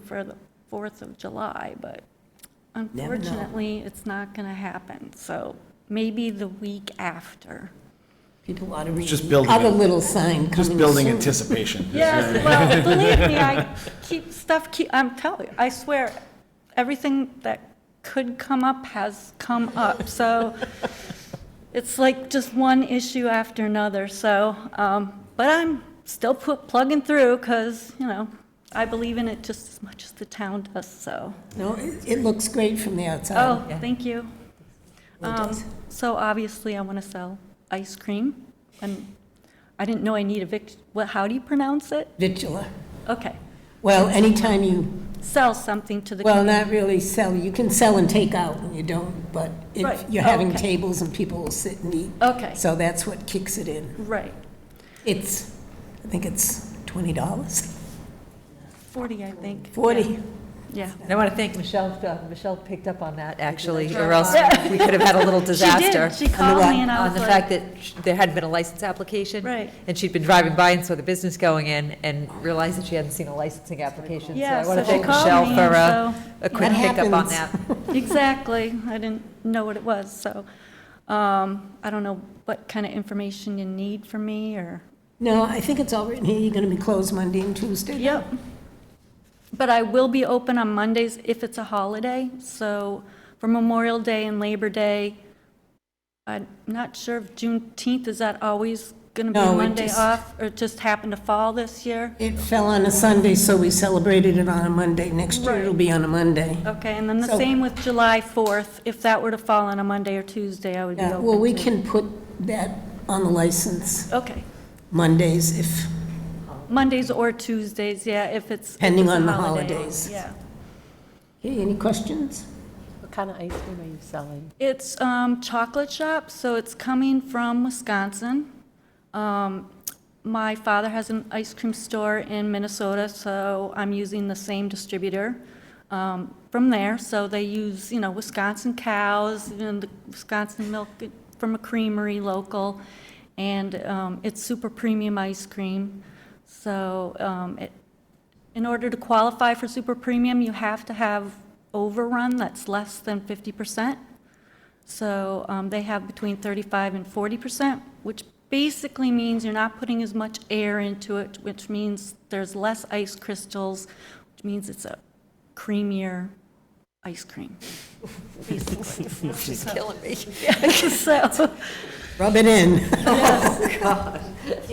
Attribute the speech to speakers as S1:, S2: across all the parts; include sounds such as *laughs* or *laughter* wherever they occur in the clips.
S1: for the 4th of July, but
S2: know.
S1: unfortunately, it's not going to happen. So maybe the week after.
S2: People ought to read
S3: Just
S2: the
S3: building
S2: other
S3: it.
S2: little sign
S3: Just
S2: coming
S3: building
S2: soon.
S3: anticipation.
S1: Yes, well, believe me, I keep, stuff keep, I'm telling you, I swear, everything that could come up has come up. So it's like just one issue after another, so, um, but I'm still pu- plugging through because, you know, I believe in it just as much as the town does, so.
S2: No, it, it looks great from the outside.
S1: Oh, thank you.
S2: It
S1: Um,
S2: does.
S1: So obviously, I want to sell ice cream, and I didn't know I need a vic, what, how do you pronounce it?
S2: Vitula.
S1: Okay,
S2: Well, anytime you,
S1: sell something to the.
S2: well, not really sell, you can sell and take out and you don't, but if
S1: Right,
S2: you're
S1: oh,
S2: having
S1: okay.
S2: tables and people will sit and eat.
S1: Okay,
S2: So that's what kicks it in.
S1: right,
S2: It's, I think it's twenty dollars,
S1: 40, I think.
S2: forty.
S1: Yeah.
S4: And I want to thank Michelle, uh, Michelle picked up on that, actually, or else we could have had a
S1: *laughs*
S4: little
S1: She did.
S4: disaster.
S1: She called me and I
S4: On
S1: was
S4: the
S1: like.
S4: fact that sh- there hadn't been a license application.
S1: Right.
S4: And she'd been driving by and saw the business going in and realized that she hadn't seen a licensing application.
S1: Yeah,
S4: I want to
S1: so she
S4: thank
S1: called
S4: Michelle
S1: me
S4: for
S1: and
S4: uh,
S1: so-
S4: a quick
S2: That
S4: pickup on that.
S1: *laughs*
S2: happens.
S1: Exactly. I didn't know what it was, so um, I don't know what kind of information you need from me or,
S2: No, I think it's all written here, you're gonna be closed Monday and Tuesday.
S1: yep. But I will be open on Mondays if it's a holiday, so for Memorial Day and Labor Day, I'm not sure if Juneteenth, is that always going to be
S2: No,
S1: a
S2: it
S1: Monday
S2: just-
S1: off? Or it just happened to fall this year?
S2: It fell on a Sunday, so we celebrated it on a Monday. Next year
S1: Right.
S2: it'll be on a Monday.
S1: Okay, and then the
S2: So-
S1: same with July 4th. If that were to fall on a Monday or Tuesday, I would be
S2: Yeah,
S1: open.
S2: well, we
S1: to-
S2: can put that on the license
S1: Okay,
S2: Mondays if,
S1: Mondays or Tuesdays, yeah, if it's. if
S2: Depending
S1: it's a
S2: on the
S1: holiday,
S2: holidays.
S1: Yeah.
S2: hey, any questions?
S5: What kind of ice cream are you selling?
S1: It's um, chocolate shop, so it's coming from Wisconsin. Um, My father has an ice cream store in Minnesota, so I'm using the same distributor um, from there. So they use, you know, Wisconsin cows and the Wisconsin milk from a creamery local. And um, it's super premium ice cream. So um, it in order to qualify for super premium, you have to have overrun that's less than 50%. So um, they have between 35 and 40%, which basically means you're not putting as much air into it, which means there's less ice crystals, which means it's a creamier ice cream.
S4: *laughs* She's killing me.
S1: *laughs* So,
S2: Rub it in. *laughs*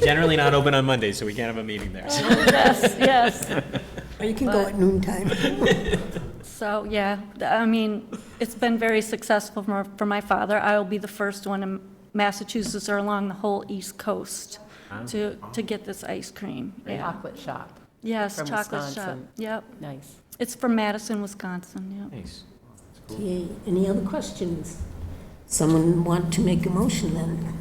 S6: Generally not open on Mondays, so we can't have a meeting there.
S1: yes, yes.
S2: Or you can go at noontime.
S1: So, yeah, th- I mean, it's been very successful for, for my father. I will be the first one in Massachusetts or along the whole East Coast to, to get this ice cream. Yeah.
S5: Chocolate shop,
S1: Yes,
S5: From
S1: chocolate shop.
S5: Wisconsin.
S1: Yep.
S5: nice.
S1: It's from Madison, Wisconsin, yep.
S6: Nice.
S2: Okay, any other questions? Someone want to make a motion then?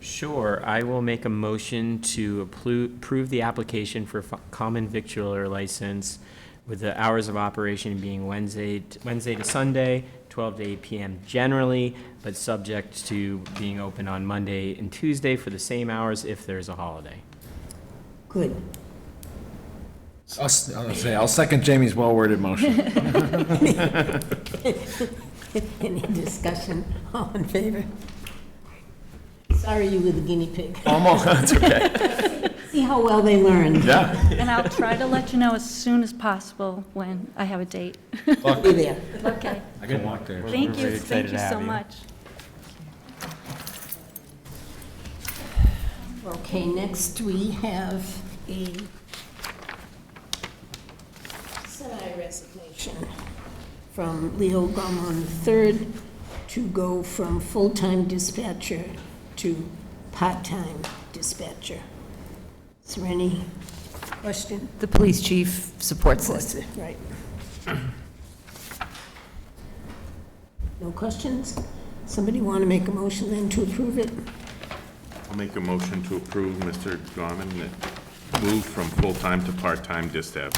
S6: Sure, I will make a motion to appro- approve the application for f- common victualler license with the hours of operation being Wednesday, t- Wednesday to Sunday, 12 to 8 PM generally, but subject to being open on Monday and Tuesday for the same hours if there's a holiday.
S2: Good. *laughs*
S3: I'll s- I'll say, I'll second Jamie's well-worded motion.
S2: Any discussion? *laughs* All in favor? Sorry you were the guinea pig.
S3: *laughs* Almost, that's okay.
S2: See how well they learned.
S3: *laughs* Yeah.
S1: And I'll try to let you know as soon as possible when I have
S5: *laughs*
S1: a date.
S2: Be there.
S1: Okay.
S3: I can walk there.
S1: Thank you, thank you so much.
S2: Okay, next we have a semi-resignation from Leo Gomon III to go from full-time dispatcher to part-time dispatcher. Is there any question?
S4: The police chief supports this.
S2: Right. No questions? Somebody want to make a motion then to approve it?
S7: I'll make a motion to approve Mr. Gorman that move from full-time to part-time dispatch-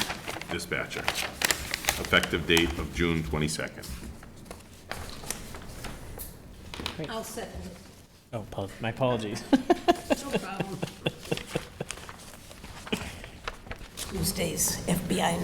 S7: dispatcher, effective date of June 22nd.
S2: I'll second it.
S6: Oh, pol- my apologies.
S2: Tuesdays, FBI